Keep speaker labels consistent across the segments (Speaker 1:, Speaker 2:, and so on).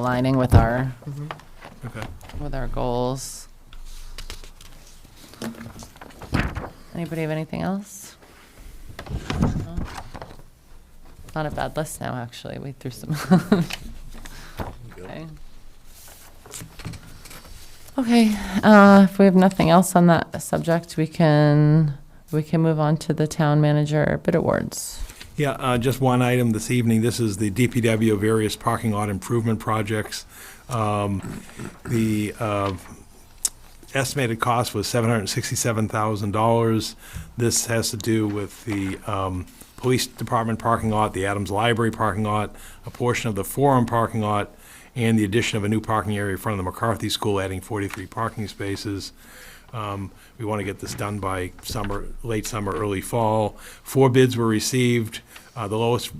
Speaker 1: aligning with our,
Speaker 2: Mm-hmm. Okay.
Speaker 1: with our goals. Anybody have anything else? No? Not a bad list now, actually. We threw some. Okay. Okay, uh, if we have nothing else on that subject, we can, we can move on to the town manager bid awards.
Speaker 2: Yeah, uh, just one item this evening. This is the DPW various parking lot improvement projects. Um, The uh, estimated cost was $767,000. This has to do with the um, police department parking lot, the Adams Library parking lot, a portion of the Forum parking lot, and the addition of a new parking area in front of the McCarthy School, adding 43 parking spaces. Um, We want to get this done by summer, late summer, early fall. Four bids were received. Uh, The lowest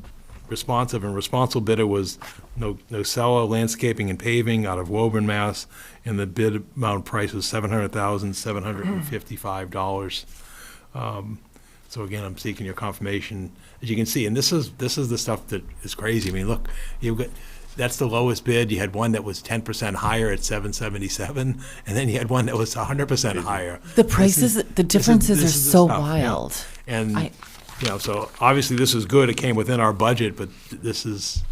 Speaker 2: responsive and responsible bidder was No- Nocella Landscaping and Paving out of Woburn, Mass. And the bid amount price was $700,755. Um, So again, I'm seeking your confirmation. As you can see, and this is, this is the stuff that is crazy. I mean, look, you've got, that's the lowest bid. You had one that was 10% higher at 777, and then you had one that was 100% higher.
Speaker 1: The
Speaker 2: This
Speaker 1: prices,
Speaker 2: is-
Speaker 1: the
Speaker 2: this is-
Speaker 1: differences are
Speaker 2: this is the
Speaker 1: so
Speaker 2: stuff, yeah.
Speaker 1: wild.
Speaker 2: And,
Speaker 1: I-
Speaker 2: you know, so obviously this is good, it came within our budget, but this is,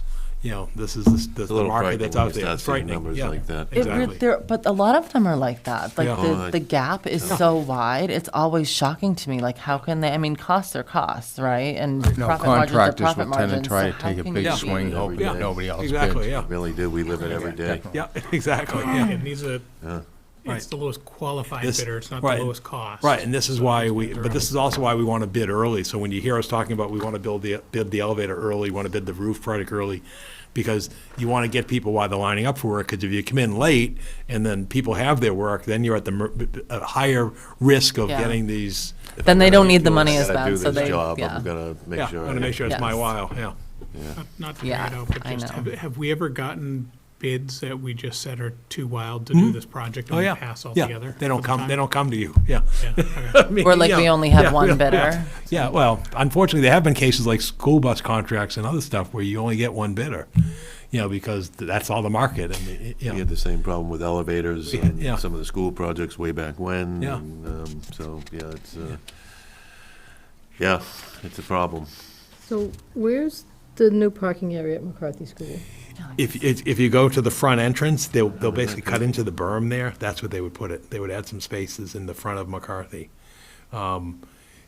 Speaker 2: you know, this is the- the
Speaker 3: little
Speaker 2: market that's
Speaker 3: frightening when
Speaker 2: out
Speaker 3: you
Speaker 2: there.
Speaker 3: start
Speaker 2: It's
Speaker 3: seeing
Speaker 2: frightening,
Speaker 3: numbers
Speaker 2: yeah,
Speaker 3: like that.
Speaker 1: It re-
Speaker 2: Exactly.
Speaker 1: there, but a lot of them are like that. Like
Speaker 2: Yeah.
Speaker 3: Oh,
Speaker 1: the,
Speaker 3: I-
Speaker 1: the gap is so wide. It's always shocking to me. Like how can they? I mean, costs are costs, right? And
Speaker 4: No,
Speaker 1: profit margins are
Speaker 4: Oh, contractors
Speaker 1: profit
Speaker 4: will tend to
Speaker 1: margins.
Speaker 4: try
Speaker 1: so
Speaker 4: to
Speaker 1: how
Speaker 4: take a
Speaker 1: can
Speaker 4: big
Speaker 1: you
Speaker 4: swing,
Speaker 1: be-
Speaker 4: hoping
Speaker 2: Yeah,
Speaker 4: that nobody else bids.
Speaker 2: Exactly, yeah,
Speaker 3: Really do, we live it every day.
Speaker 2: yeah, exactly, yeah.
Speaker 5: And these are, it's
Speaker 2: Right.
Speaker 5: the lowest qualified
Speaker 2: This-
Speaker 5: bidder, it's not the
Speaker 2: right.
Speaker 5: lowest cost.
Speaker 2: Right, and this is why we, but this is also why we want to bid early. So when you hear us talking about we want to build the, bid the elevator early, want to bid the roof project early, because you want to get people while they're lining up for work, because if you come in late and then people have their work, then you're at the mer- b- b- a higher risk of
Speaker 1: Yeah.
Speaker 2: getting these,
Speaker 3: If
Speaker 1: Then
Speaker 3: I'm
Speaker 1: they
Speaker 3: gonna
Speaker 1: don't need
Speaker 3: do
Speaker 1: the
Speaker 3: it,
Speaker 1: money
Speaker 3: I
Speaker 1: as
Speaker 3: gotta do
Speaker 1: bad, so
Speaker 3: this
Speaker 1: they-
Speaker 3: job, I'm
Speaker 1: yeah.
Speaker 3: gonna make
Speaker 2: yeah,
Speaker 3: sure.
Speaker 2: want to
Speaker 3: I-
Speaker 2: make sure it's my
Speaker 1: Yes.
Speaker 2: while, yeah.
Speaker 5: Not to
Speaker 1: Yeah,
Speaker 5: drag it out, but
Speaker 1: I
Speaker 5: just,
Speaker 1: know.
Speaker 5: have, have we ever gotten bids that we just said are too wild to do this project
Speaker 2: Oh,
Speaker 5: and we
Speaker 2: yeah.
Speaker 5: pass
Speaker 2: Yeah,
Speaker 5: altogether?
Speaker 2: they don't
Speaker 5: for the
Speaker 2: come,
Speaker 5: time?
Speaker 2: they don't come to you, yeah.
Speaker 5: Yeah, okay.
Speaker 2: I mean,
Speaker 1: Or like
Speaker 2: yeah,
Speaker 1: we only have
Speaker 2: yeah,
Speaker 1: one
Speaker 2: yeah,
Speaker 1: bidder.
Speaker 2: yeah. Yeah, well, unfortunately, there have been cases like school bus contracts and other stuff where you only get one bidder, you know, because th- that's all the market and, it-
Speaker 3: We
Speaker 2: you know.
Speaker 3: had the same problem with elevators
Speaker 2: Yeah, yeah.
Speaker 3: and some of the school projects way back when.
Speaker 2: Yeah.
Speaker 3: and, um, So, yeah, it's, uh, yeah, it's a problem.
Speaker 6: So where's the new parking area at McCarthy School?
Speaker 2: If, if if you go to the front entrance, they'll, they'll basically cut into the berm there. That's what they would put it. They would add some spaces in the front of McCarthy. Um,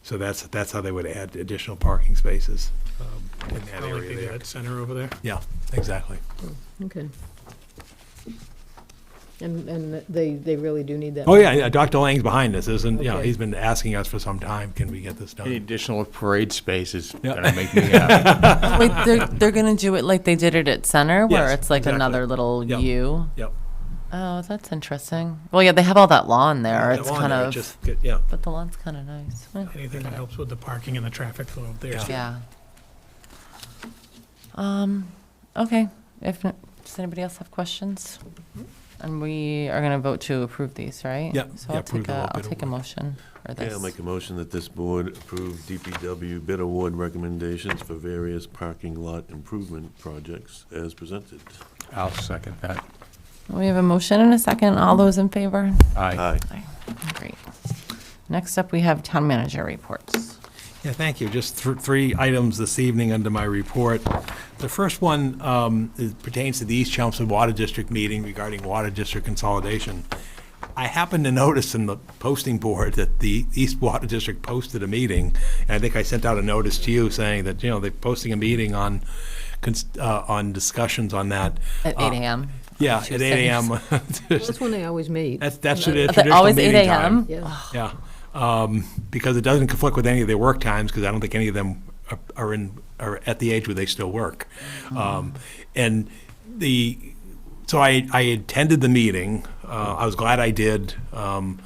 Speaker 2: So that's, that's how they would add additional parking spaces um, in that
Speaker 5: Kinda like
Speaker 2: area
Speaker 5: they do
Speaker 2: there.
Speaker 5: at Center over there.
Speaker 2: Yeah, exactly.
Speaker 6: Okay. And, and they, they really do need that.
Speaker 2: Oh, yeah, yeah, Dr. Lang's behind us, isn't, you know,
Speaker 6: Okay.
Speaker 2: he's been asking us for some time, can we get this done?
Speaker 4: Any additional parade space is
Speaker 2: Yeah.
Speaker 4: gonna make me happy.
Speaker 1: Wait, they're they're gonna do it like they did it at Center, where
Speaker 2: Yes,
Speaker 1: it's like
Speaker 2: exactly.
Speaker 1: another little
Speaker 2: Yep.
Speaker 1: U.
Speaker 2: Yep.
Speaker 1: Oh, that's interesting. Well, yeah, they have all that lawn there.
Speaker 2: Yeah,
Speaker 1: It's
Speaker 2: lawn
Speaker 1: kind
Speaker 2: there,
Speaker 1: of,
Speaker 2: just get- Yeah,
Speaker 1: but the lawn's kind of nice. Eh,
Speaker 5: Anything that helps with the parking and the traffic flow up there.
Speaker 2: Yeah.
Speaker 5: too.
Speaker 1: Yeah. Um. Okay. If n- does anybody else have questions? And we are gonna vote to approve these, right?
Speaker 2: Yeah,
Speaker 1: So
Speaker 2: yeah,
Speaker 1: I'll
Speaker 2: approve
Speaker 1: take
Speaker 2: the whole
Speaker 1: a I'll
Speaker 2: bid
Speaker 1: take a motion or
Speaker 3: Okay,
Speaker 1: this.
Speaker 3: I'll make a motion that this board approve DPW bid award recommendations for various parking lot improvement projects as presented.
Speaker 4: I'll second that.
Speaker 1: We have a motion and a second. All those in favor?
Speaker 4: Aye.
Speaker 3: Aye.
Speaker 1: Great. Next up, we have town manager reports.
Speaker 2: Yeah, thank you. Just thr- three items this evening under my report. The first one um, is- pertains to the East Chelmsford Water District meeting regarding water district consolidation. I happened to notice in the posting board that the East Water District posted a meeting, and I think I sent out a notice to you saying that, you know, they're posting a meeting on, cons- uh, on discussions on that.
Speaker 1: At
Speaker 2: Uh,
Speaker 1: 8 a.m.
Speaker 2: Yeah, at eight AM.
Speaker 6: That's when they always meet.
Speaker 2: That's, that's the
Speaker 1: Are they
Speaker 2: traditional
Speaker 1: always 8
Speaker 2: meeting time.
Speaker 1: a.m.?
Speaker 6: Yeah.
Speaker 2: Yeah, um, because it doesn't conflict with any of their work times, because I don't think any of them are- are in, are at the age where they still work. Um, And the, so I, I attended the meeting, uh, I was glad I did. Um,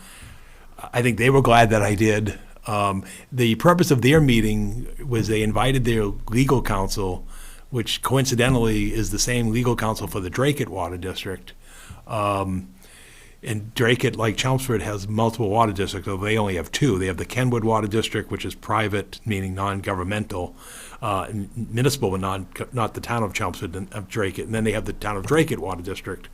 Speaker 2: I think they were glad that I did. Um, The purpose of their meeting was they invited their legal counsel, which coincidentally is the same legal counsel for the Drake at Water District. Um, And Drake, it like Chelmsford, has multiple water districts, although they only have two. They have the Kenwood Water District, which is private, meaning non-governmental, uh, and municipal, but not, not the town of Chelmsford and of Drake. And then they have the town of Drake Water District,